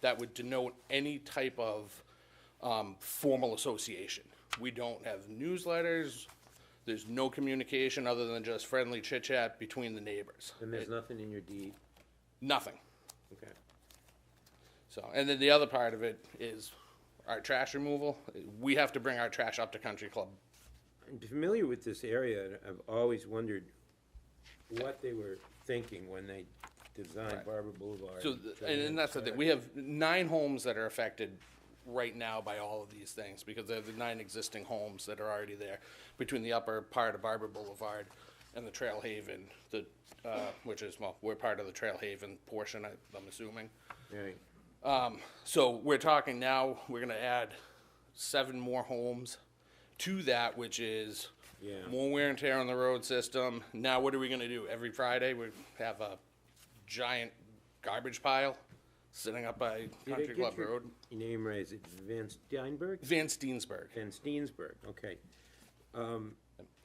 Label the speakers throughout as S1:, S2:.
S1: that would denote any type of um, formal association. We don't have newsletters. There's no communication other than just friendly chit chat between the neighbors.
S2: And there's nothing in your deed?
S1: Nothing.
S2: Okay.
S1: So, and then the other part of it is our trash removal. We have to bring our trash up to Country Club.
S2: I'm familiar with this area, and I've always wondered what they were thinking when they designed Barber Boulevard.
S1: So, th- and, and that's the thing. We have nine homes that are affected right now by all of these things because they're the nine existing homes that are already there between the upper part of Barber Boulevard and the Trail Haven, the, uh, which is, well, we're part of the Trail Haven portion, I, I'm assuming.
S2: Right.
S1: Um, so we're talking now, we're gonna add seven more homes to that, which is
S2: Yeah.
S1: more wear and tear on the road system. Now, what are we gonna do? Every Friday, we have a giant garbage pile sitting up by
S2: Did I
S1: Country
S2: get
S1: Club
S2: your
S1: Road.
S2: Name raised, it's Van Steinberg?
S1: Van Steensberg.
S2: Van Steensberg, okay.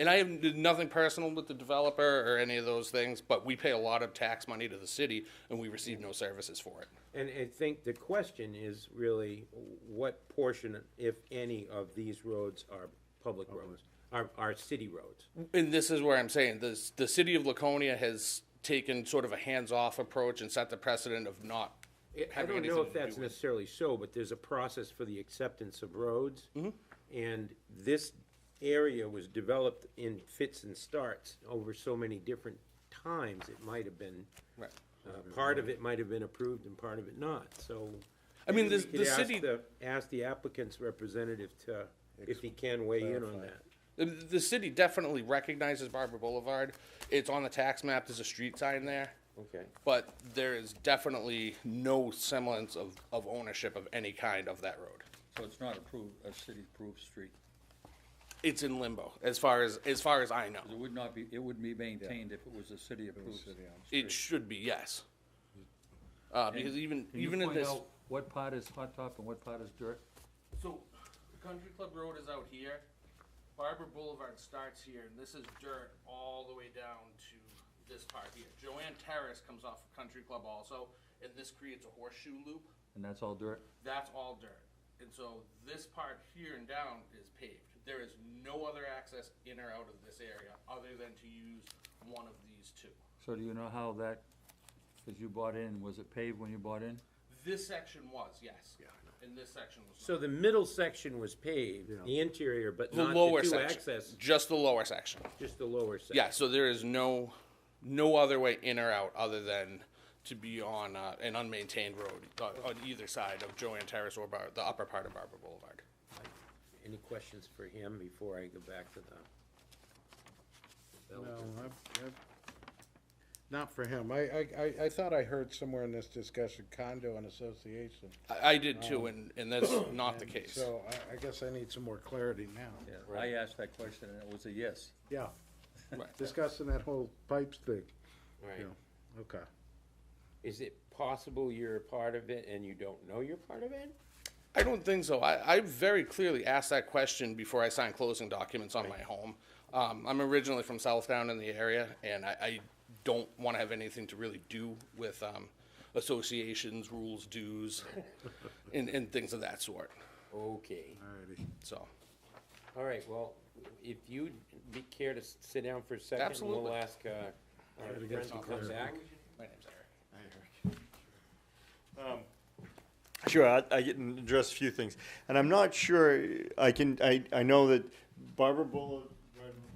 S1: And I have did nothing personal with the developer or any of those things, but we pay a lot of tax money to the city and we receive no services for it.
S2: And I think the question is really, what portion, if any, of these roads are public roads, are, are city roads?
S1: and this is where I'm saying this, the city of Laconia has taken sort of a hands-off approach and set the precedent of not
S2: I- I
S1: having
S2: don't know
S1: anything
S2: if
S1: to
S2: that's
S1: do with.
S2: necessarily so, but there's a process for the acceptance of roads. And this area was developed in fits and starts over so many different times, it might have been.
S1: Right.
S2: uh,
S1: Mm-hmm.
S2: Part of it might have been approved and part of it not, so.
S1: I mean,
S2: maybe
S1: this-
S2: we could
S1: the
S2: ask
S1: city-
S2: the- Ask the applicant's representative to, if he can weigh in on that.
S1: The, the city definitely recognizes Barber Boulevard. It's on the tax map. There's a street sign there.
S2: Okay.
S1: But there is definitely no semblance of, of ownership of any kind of that road.
S3: So it's not approved, a city-approved street.
S1: It's in limbo as far as, as far as I know.
S3: It would not be, it would be maintained if it was a city-approved.
S1: It should be, yes. Uh, because even, even in this.
S3: What part is hot top and what part is dirt?
S1: So, Country Club Road is out here. Barber Boulevard starts here, and this is dirt all the way down to this part here. Joanne Terrace comes off of Country Club also, and this creates a horseshoe loop.
S4: And that's all dirt?
S1: That's all dirt. And so this part here and down is paved. There is no other access in or out of this area other than to use one of these two.
S4: So do you know how that, because you bought in, was it paved when you bought in?
S1: This section was, yes. Yeah, I know. And this section was
S2: So the middle section was paved, the interior, but
S1: The
S2: not
S1: lower
S2: the two
S1: section,
S2: access,
S1: just the lower section.
S2: just the lower section.
S1: Yeah, so there is no, no other way in or out other than to be on uh, an unmaintained road uh, on either side of Joanne Terrace or Bar- the upper part of Barber Boulevard.
S2: Any questions for him before I go back to the?
S5: No, I've, I've, not for him. I, I, I, I thought I heard somewhere in this discussion condo and association.
S1: I, I did too, and, and that's not the case.
S5: So I, I guess I need some more clarity now.
S3: I asked that question and it was a yes.
S5: Yeah,
S1: Right.
S5: discussing that whole pipes thing.
S2: Right.
S5: Yeah, okay.
S2: Is it possible you're a part of it and you don't know you're part of it?
S1: I don't think so. I, I very clearly asked that question before I signed closing documents on my home. Um, I'm originally from Southdown in the area, and I, I don't want to have anything to really do with um, associations, rules, dues, and, and things of that sort.
S2: Okay.
S5: Alrighty.
S1: So.
S2: All right, well, if you'd be care to s- sit down for a second, and
S1: Absolutely.
S2: we'll ask, uh, our
S5: gotta get
S2: friend to
S5: some
S2: come
S5: clarity.
S2: back.
S1: My name's Eric.
S6: Um, Sure, I, I can address a few things, and I'm not sure I can. I, I know that Barber Boulevard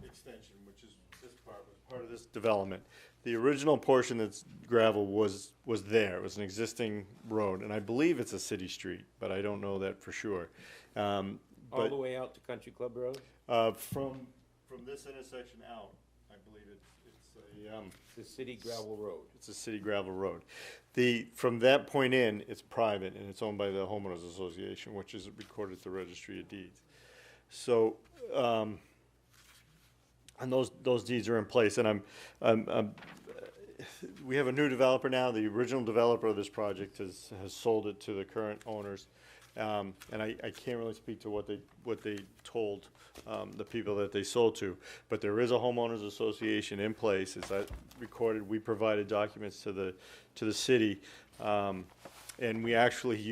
S6: Extension, which is this part, was part of this development. The original portion that's gravel was was there. It was an existing road, and I believe it's a city street, but I don't know that for sure. Um,
S2: All
S6: but
S2: the way out to Country Club Road?
S6: uh, from from this intersection out, I believe it's it's a. Um,
S2: The city gravel road.
S6: it's a city gravel road. The, from that point in, it's private and it's owned by the homeowners association, which is recorded at the registry of deeds. So, um, and those, those deeds are in place and I'm, I'm, I'm- we have a new developer now. The original developer of this project has, has sold it to the current owners. Um, and I, I can't really speak to what they, what they told, um, the people that they sold to. But there is a homeowners association in place, as I recorded, we provided documents to the, to the city. Um, and we actually